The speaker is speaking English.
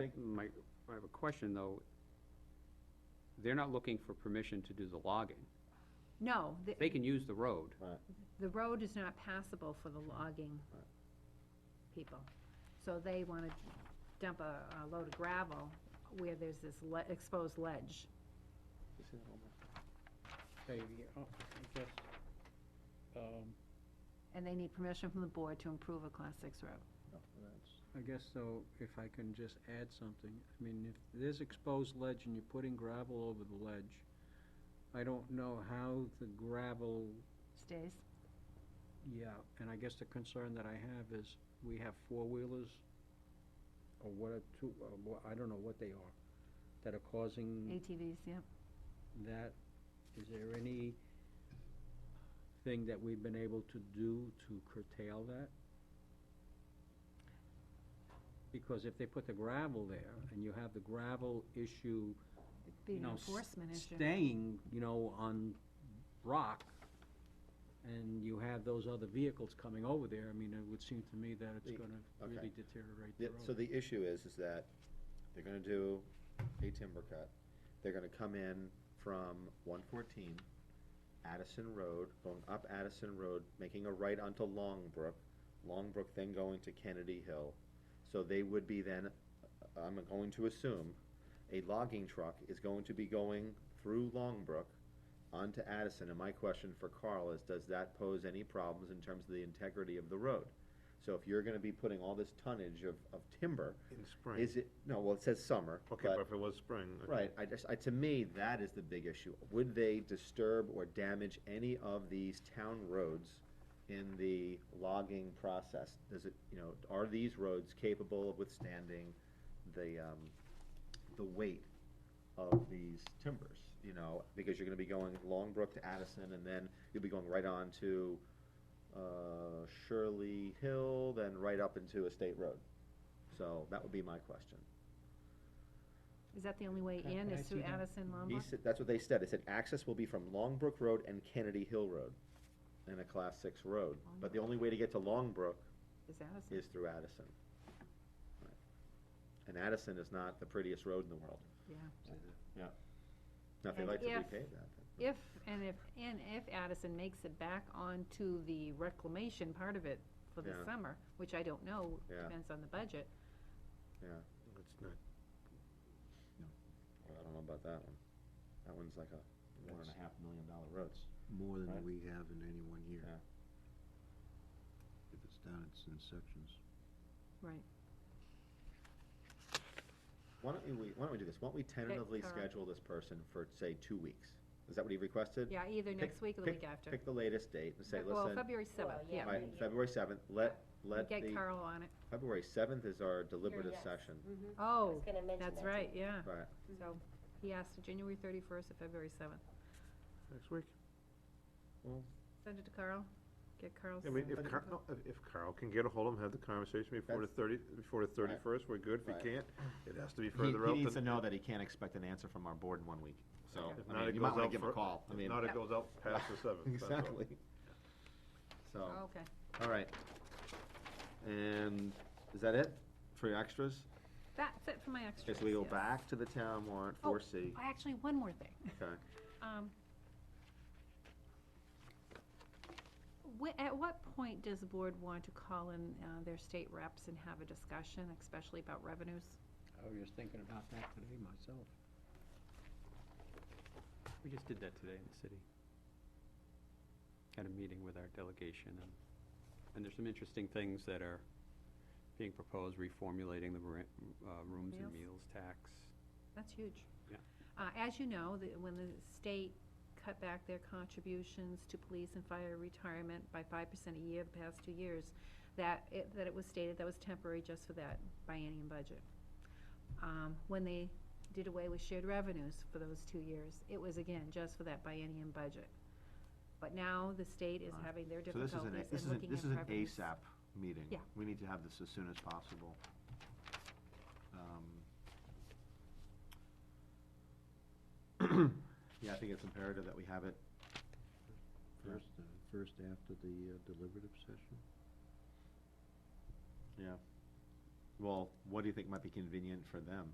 think my, I have a question, though. They're not looking for permission to do the logging. No, the, They can use the road. Right. the road is not passable for the logging Right. people. So they wanna dump a, a load of gravel where there's this le- exposed ledge. Okay, yeah, oh, I guess, um, And they need permission from the board to improve a class six road. No, that's- I guess though, if I can just add something, I mean, if there's exposed ledge and you're putting gravel over the ledge, I don't know how the gravel, Stays? yeah, and I guess the concern that I have is, we have four-wheelers, or what are two, or what, I don't know what they are, that are causing ATVs, yeah. that, is there any thing that we've been able to do to curtail that? Because if they put the gravel there, and you have the gravel issue, It'd Be you an know, s- enforcement issue. staying, you know, on rock, and you have those other vehicles coming over there, I mean, it would seem to me that it's The- gonna okay. really deteriorate the Yeah, road. so the issue is, is that they're gonna do a timber cut, they're gonna come in from one fourteen, Addison Road, going up Addison Road, making a right onto Longbrook, Longbrook then going to Kennedy Hill. So they would be then, I'm going to assume, a logging truck is going to be going through Longbrook onto Addison, and my question for Carl is, does that pose any problems in terms of the integrity of the road? So if you're gonna be putting all this tonnage of, of timber, In spring. is it, no, well, it says summer, Okay, but if it was spring. okay. Right, I just, I, to me, that is the big issue. Would they disturb or damage any of these town roads in the logging process? Does it, you know, are these roads capable of withstanding the, um, the weight of these timbers? You know, because you're gonna be going Longbrook to Addison, and then you'll be going right on to, uh, Shirley Hill, then right up into a state road. So that would be my question. Is that the only way Can- in, can I is through see that? Addison He Lombard? said, that's what they said, they said access will be from Longbrook Road and Kennedy Hill Road, and a class six road, but the only way to get to Longbrook Is Addison? is through Addison. Right. And Addison is not the prettiest road in the world, Yeah. now if they And like to if- repave that, then- If, and if, and if Addison makes it back onto the reclamation part of it for the Yeah. summer, which I don't know, Yeah. depends on the budget, yeah, It's not, well, I don't know about that one. That one's like a one and a half million dollar roads. More Right. than we have in any one year. Yeah. If it's done, it's in sections. right. Why don't we, why don't we do this, why don't we tentatively Carl. schedule this person for, say, two weeks? Is that what he requested? Yeah, either Pick- next week or the pick- week after. Pick the latest date and say, Fe- Well, listen, February seventh, yeah. by February seventh, let, let the. Get Carl on it. February seventh is our deliberative yes. session. Oh, Mm-hmm. was gonna mention that's that, right, yeah. Right, So, he asked for January thirty-first or February seventh. next week. Send it to Carl, get Carl's. I mean, if But- Carl, no, if- if Carl can get a hold of him, have the conversation before the thirty, before the Right. thirty-first, we're good. If Right. he can't, it has to He, be further out. needs to than- know that he can't expect an answer from our board in one week, so, If I not, mean, it you might goes wanna out give him a for- call, I if mean. Not, Yep. it goes out past the seventh. that's all. Exactly. So, Oh, Okay. all right. And is that it for your extras? That's it for my extras. Okay, so we go yes. back to the town warrant, Oh, four C, Actually, one more thing. okay. Um, wh- at what point does the board want to call in, uh, their state reps and have a discussion, especially about revenues? I was just thinking about that today myself. We just did that today in the city. Had a meeting with our delegation, and, and there's some interesting things that are being proposed, reformulating the ra- uh, rooms and meals tax. That's huge. Yeah. Uh, as you know, the, when the state cut back their contributions to police and fire retirement by five percent a year the past two years, that it, that it was stated that was temporary just for that biennium budget. Um, when they did away with shared revenues for those two years, it was again just for that biennium budget. But now the state is Right. having their So this is an, difficulties this is in an, looking this at is an revenues. ASAP meeting. Yeah. We need to have this as soon as possible. Um, Yeah, I think it's imperative that we have it. Yeah. First, uh, first after the uh, deliberative session. Yeah. well, what do you think might be convenient for them?